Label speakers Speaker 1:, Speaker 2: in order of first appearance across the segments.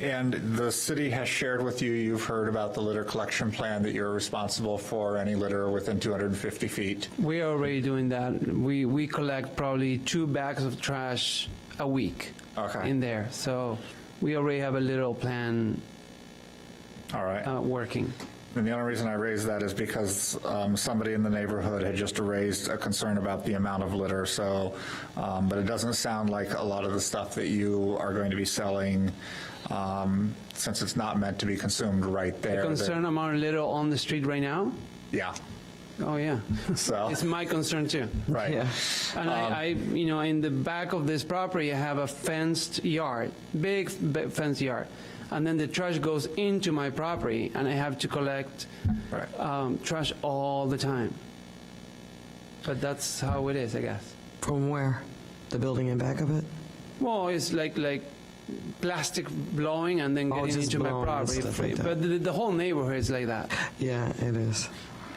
Speaker 1: And the city has shared with you, you've heard about the litter collection plan, that you're responsible for any litter within 250 feet.
Speaker 2: We are already doing that. We, we collect probably two bags of trash a week
Speaker 1: Okay.
Speaker 2: in there. So we already have a little plan
Speaker 1: All right.
Speaker 2: uh, working.
Speaker 1: And the only reason I raised that is because um, somebody in the neighborhood had just raised a concern about the amount of litter, so, um, but it doesn't sound like a lot of the stuff that you are going to be selling, um, since it's not meant to be consumed right there. that-
Speaker 2: Concern amount little on the street right now?
Speaker 1: Yeah,
Speaker 2: Oh, yeah.
Speaker 1: so,
Speaker 2: It's my concern too.
Speaker 1: right. Um,
Speaker 2: And I, I, you know, in the back of this property, I have a fenced yard, big b- fenced yard. And then the trash goes into my property and I have to collect
Speaker 1: Right.
Speaker 2: um, trash all the time. But that's how it is, I guess.
Speaker 3: From where? The building in back of it?
Speaker 2: Well, it's like, like plastic blowing and then
Speaker 3: Oh,
Speaker 2: getting
Speaker 3: just
Speaker 2: into my
Speaker 3: blowing and
Speaker 2: property.
Speaker 3: stuff like that.
Speaker 2: But the, the whole neighborhood is like that.
Speaker 3: Yeah, it is.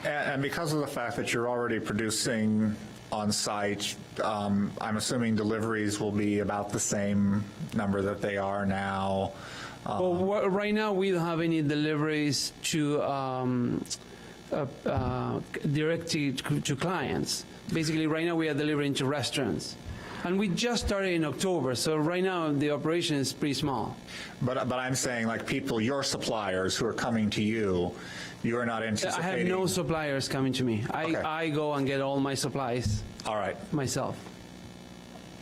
Speaker 1: And and because of the fact that you're already producing on-site, um, I'm assuming deliveries will be about the same number that they are now. Uh,
Speaker 2: Well, wha- right now, we don't have any deliveries to um, uh, uh, direct to- to clients. Basically, right now, we are delivering to restaurants. And we just started in October, so right now, the operation is pretty small.
Speaker 1: But, but I'm saying like people, your suppliers who are coming to you, you are not
Speaker 2: I
Speaker 1: anticipating.
Speaker 2: have no suppliers coming to me. I
Speaker 1: Okay.
Speaker 2: I go and get all my supplies
Speaker 1: All right,
Speaker 2: myself.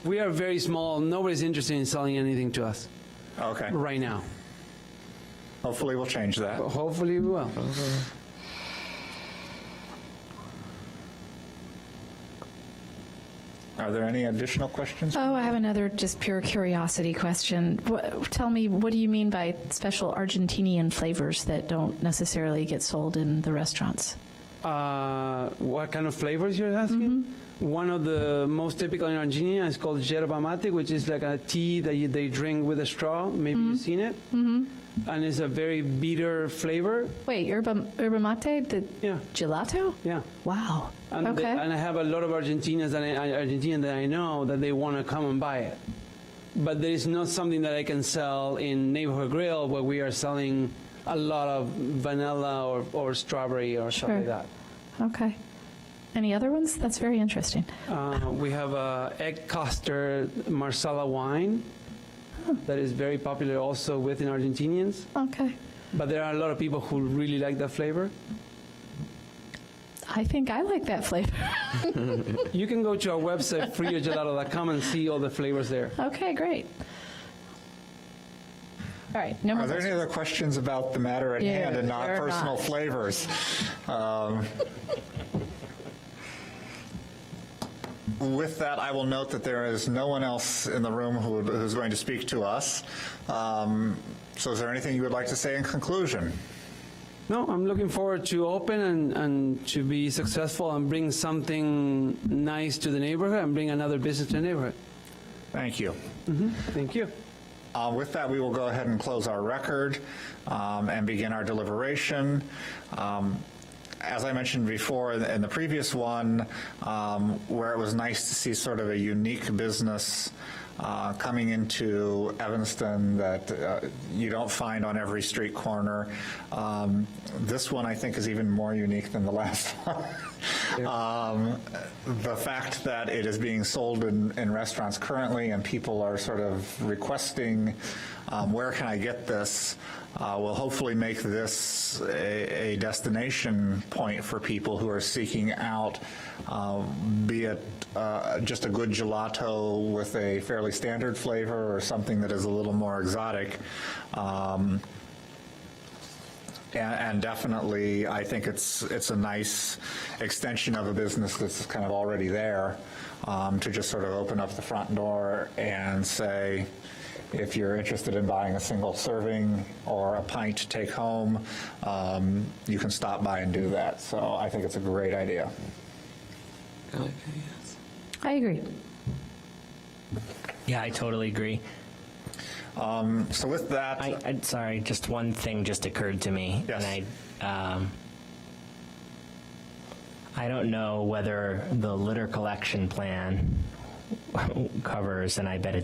Speaker 2: We are very small. Nobody's interested in selling anything to us
Speaker 1: okay.
Speaker 2: right now.
Speaker 1: Hopefully we'll change that.
Speaker 2: But hopefully, we will.
Speaker 1: Are there any additional questions?
Speaker 4: Oh, I have another just pure curiosity question. What, tell me, what do you mean by special Argentinian flavors that don't necessarily get sold in the restaurants?
Speaker 2: Uh, what kind of flavors you're asking?
Speaker 4: Mm-hmm.
Speaker 2: One of the most typical in Argentina is called yerba mate, which is like a tea that you, they drink with a straw. Maybe you've seen it. Mm-hmm. And it's a very bitter flavor.
Speaker 4: Wait, yerba, yerba mate, the
Speaker 2: Yeah,
Speaker 4: gelato?
Speaker 2: yeah.
Speaker 4: Wow.
Speaker 2: And,
Speaker 4: okay.
Speaker 2: they- and I have a lot of Argentinians that I, Argentinian that I know that they want to come and buy it. But there is not something that I can sell in Neighborhood Grill where we are selling a lot of vanilla or, or strawberry or
Speaker 4: Sure.
Speaker 2: something like that.
Speaker 4: okay. Any other ones? That's very interesting.
Speaker 2: Uh, we have a egg custard marsala wine that is very popular also within Argentinians,
Speaker 4: Okay.
Speaker 2: but there are a lot of people who really like that flavor.
Speaker 4: I think I like that flavor.
Speaker 2: You can go to our website friogelato.com and see all the flavors there.
Speaker 4: Okay, great. All right, no more
Speaker 1: Are there any
Speaker 4: questions.
Speaker 1: other questions about the matter at
Speaker 4: Yeah,
Speaker 1: hand and not
Speaker 4: there are
Speaker 1: personal
Speaker 4: not.
Speaker 1: flavors? Um, With that, I will note that there is no one else in the room who who's going to speak to us. Um, So is there anything you would like to say in conclusion?
Speaker 2: No, I'm looking forward to open and, and to be successful and bring something nice to the neighborhood and bring another business to the neighborhood.
Speaker 1: Thank you.
Speaker 2: Thank you.
Speaker 1: Uh, With that, we will go ahead and close our record um, and begin our deliberation. Um, As I mentioned before in in the previous one, um, where it was nice to see sort of a unique business uh, coming into Evanston that uh, you don't find on every street corner, um, this one I think is even more unique than the last one. Um, The fact that it is being sold in in restaurants currently and people are sort of requesting, um, where can I get this, uh, will hopefully make this a a destination point for people who are seeking out, um, be it uh, just a good gelato with a fairly standard flavor or something that is a little more exotic. Um, and, and definitely, I think it's, it's a nice extension of a business that's kind of already there um, to just sort of open up the front door and say, if you're interested in buying a single serving or a pint to take home, um, you can stop by and do that. So I think it's a great idea.
Speaker 4: I agree.
Speaker 5: Yeah, I totally agree.
Speaker 1: So with that,
Speaker 5: I, I sorry, just one thing just occurred to me.
Speaker 1: Yes.
Speaker 5: And I, um, I don't know whether the litter collection plan covers, and I bet it